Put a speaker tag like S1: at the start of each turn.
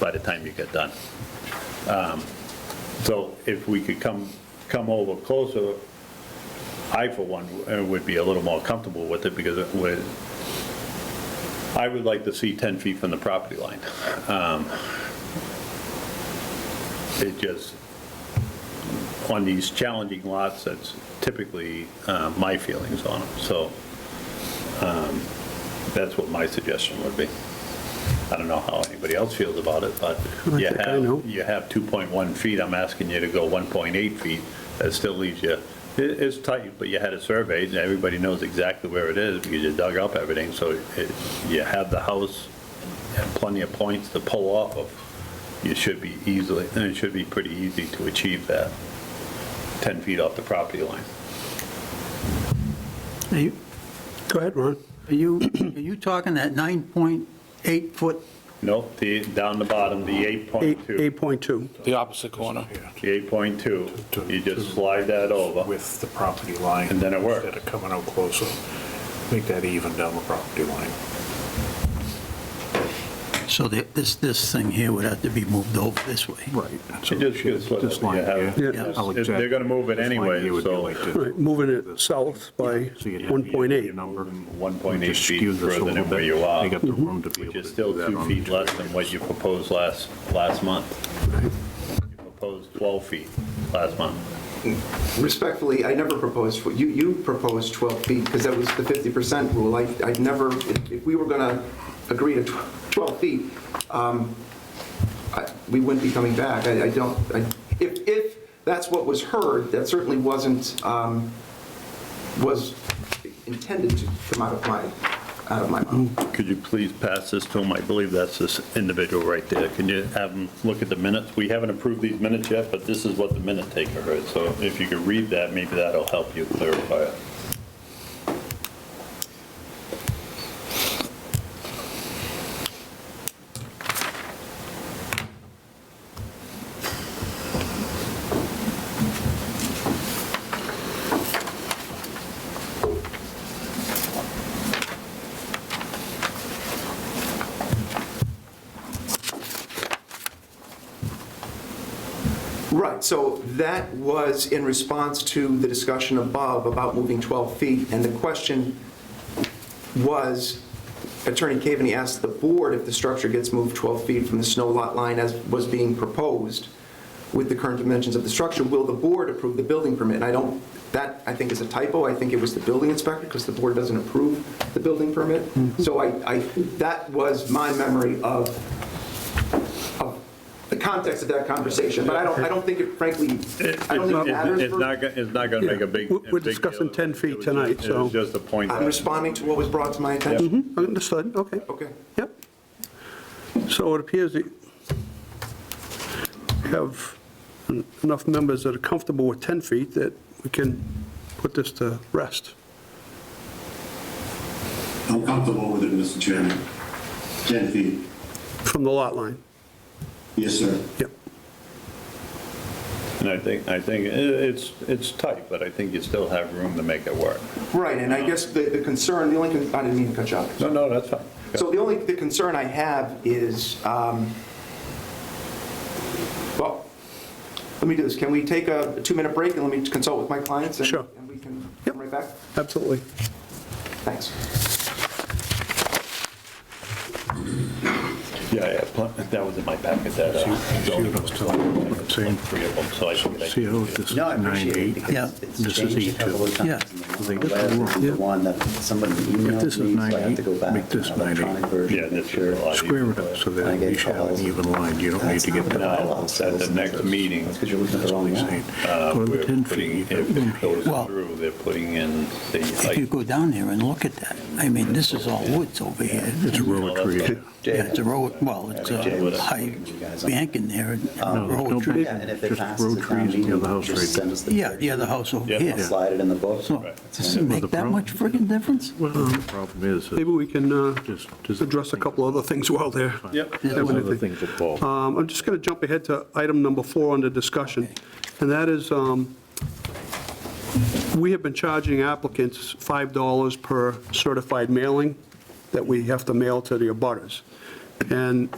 S1: by the time you get done. Um, So if we could come, come over closer, I for one uh, would be a little more comfortable with it because it would, I would like to see 10 feet from the property line. Um, It just, on these challenging lots, that's typically uh, my feelings on them, so um, that's what my suggestion would be. I don't know how anybody else feels about it, but
S2: I
S1: you
S2: think I know.
S1: have, you have 2.1 feet, I'm asking you to go 1.8 feet, that still leaves you, it- it's tight, but you had it surveyed, and everybody knows exactly where it is, because you dug up everything, so it- you have the house, and plenty of points to pull off of you should be easily, and it should be pretty easy to achieve that, 10 feet off the property line.
S2: Are you- Go ahead, Ron.
S3: Are you, are you talking that 9.8 foot?
S1: Nope, the, down the bottom, the 8.2,
S2: 8.2.
S4: The opposite corner.
S1: the 8.2, you just slide that over,
S5: With the property line.
S1: And then it worked.
S5: Instead of coming out closer, make that even down the property line.
S3: So the- this, this thing here would have to be moved over this way.
S5: Right.
S1: It just gets slipped.
S5: This line
S1: You have-
S5: here.
S2: Yeah.
S5: I like
S1: If
S5: that.
S1: they're gonna move it
S5: This line
S1: anyway,
S5: here would be
S1: so-
S5: like this.
S2: Right, moving it south by
S5: So you'd have your
S2: 1.8.
S5: number.
S1: 1.8
S5: Just skew
S1: feet
S5: this a
S1: further
S5: little
S1: than where
S5: bit.
S1: you are,
S5: They got the room to be able
S1: which
S5: to
S1: is still
S5: do that
S1: two
S5: on
S1: feet
S5: each
S1: less than what you proposed last, last month. You proposed 12 feet last month.
S6: Respectfully, I never proposed, you, you proposed 12 feet, because that was the 50% rule. I, I'd never, if if we were going to agree to tw- 12 feet, um, I- we wouldn't be coming back. I, I don't, I- if, if that's what was heard, that certainly wasn't, um, was intended to come out of my, out of my mouth.
S1: Could you please pass this to him? I believe that's this individual right there. Can you have him look at the minutes? We haven't approved these minutes yet, but this is what the minute taker heard. So if you could read that, maybe that'll help you clarify it.
S6: Right, so that was in response to the discussion above about moving 12 feet, and the question was, Attorney Cavaney asked the board if the structure gets moved 12 feet from the snow lot line as was being proposed with the current dimensions of the structure, will the board approve the building permit? And I don't, that, I think is a typo, I think it was the building inspector, because the board doesn't approve the building permit. So I, I, that was my memory of, of the context of that conversation, but I don't, I don't think it frankly, I don't think it matters.
S1: It's
S6: for-
S1: not, go- it's not going to make a big.
S2: Yeah,
S1: a
S2: we're
S1: big deal.
S2: discussing 10 feet
S1: It was
S2: tonight,
S1: just-
S2: so-
S1: It was just a point.
S6: I'm
S1: that-
S6: responding to what was brought to my attention.
S2: Mhm, Understood, okay.
S6: Okay.
S2: Yep. So it appears that you have en- enough members that are comfortable with 10 feet that we can put this to rest.
S7: I'm comfortable with it, Mr. Chairman. 10 feet.
S2: From the lot line,
S7: Yes, sir.
S2: yep.
S1: And I think, I think it- it's, it's tight, but I think you still have room to make it work.
S6: Right, and I guess the, the concern, the only, con- I didn't mean to cut you off.
S1: No, no, that's fine.
S6: So the only, the concern I have is, um, well, let me do this, can we take a two-minute break and let me consult with my clients? and-
S2: Sure.
S6: And we can
S2: Yep.
S6: come right back?
S2: Absolutely.
S6: Thanks.
S1: Yeah, yeah, pl- that was in my packet, that. uh,
S5: See what I was telling you, saying,
S1: Three of them, so I figured I
S5: See how this is
S8: No, I appreciate it
S5: 9.8?
S8: because
S3: Yeah.
S8: it's
S5: This is
S8: changed a couple of
S5: E2.
S8: times.
S3: Yeah.
S5: They got the
S8: Last is
S5: wrong.
S8: the one that somebody
S5: If this is
S8: emailed me, so I have to go
S5: 9.8,
S8: back
S5: make
S8: to
S5: this
S8: an electronic
S5: 9.8.
S8: version.
S1: Yeah,
S8: to make
S1: that's
S8: sure.
S1: right.
S5: Square it up so that you should have an even line, you don't need to get that.
S1: No, at the next meeting,
S8: That's because you're looking at the wrong one.
S1: uh,
S5: Go to
S1: we're
S5: the 10
S1: putting,
S5: feet.
S1: if it goes
S3: Well-
S1: through, they're putting in the
S3: If you
S1: height.
S3: go down there and look at that, I mean, this is all woods over here.
S5: It's a row of trees.
S3: Yeah, it's a row, well, it's a high bank in there and a
S5: No, there's
S3: row
S5: no
S3: of trees.
S5: bank.
S8: Yeah, and if it
S5: Just
S8: passes
S5: road
S8: the town
S5: trees near the
S8: meeting,
S5: house right
S8: just send us the.
S3: Yeah, yeah, the house over
S1: Yeah.
S3: here.
S8: Slide it in the book.
S3: So, does it make that much friggin' difference?
S5: Well, the problem is,
S2: Maybe we can uh,
S5: Just- just-
S2: address a couple other things while they're.
S1: Yep.
S5: there's other things involved.
S2: Um, I'm just going to jump ahead to item number four under discussion, and that is, um, we have been charging applicants $5 per certified mailing that we have to mail to the abutters. And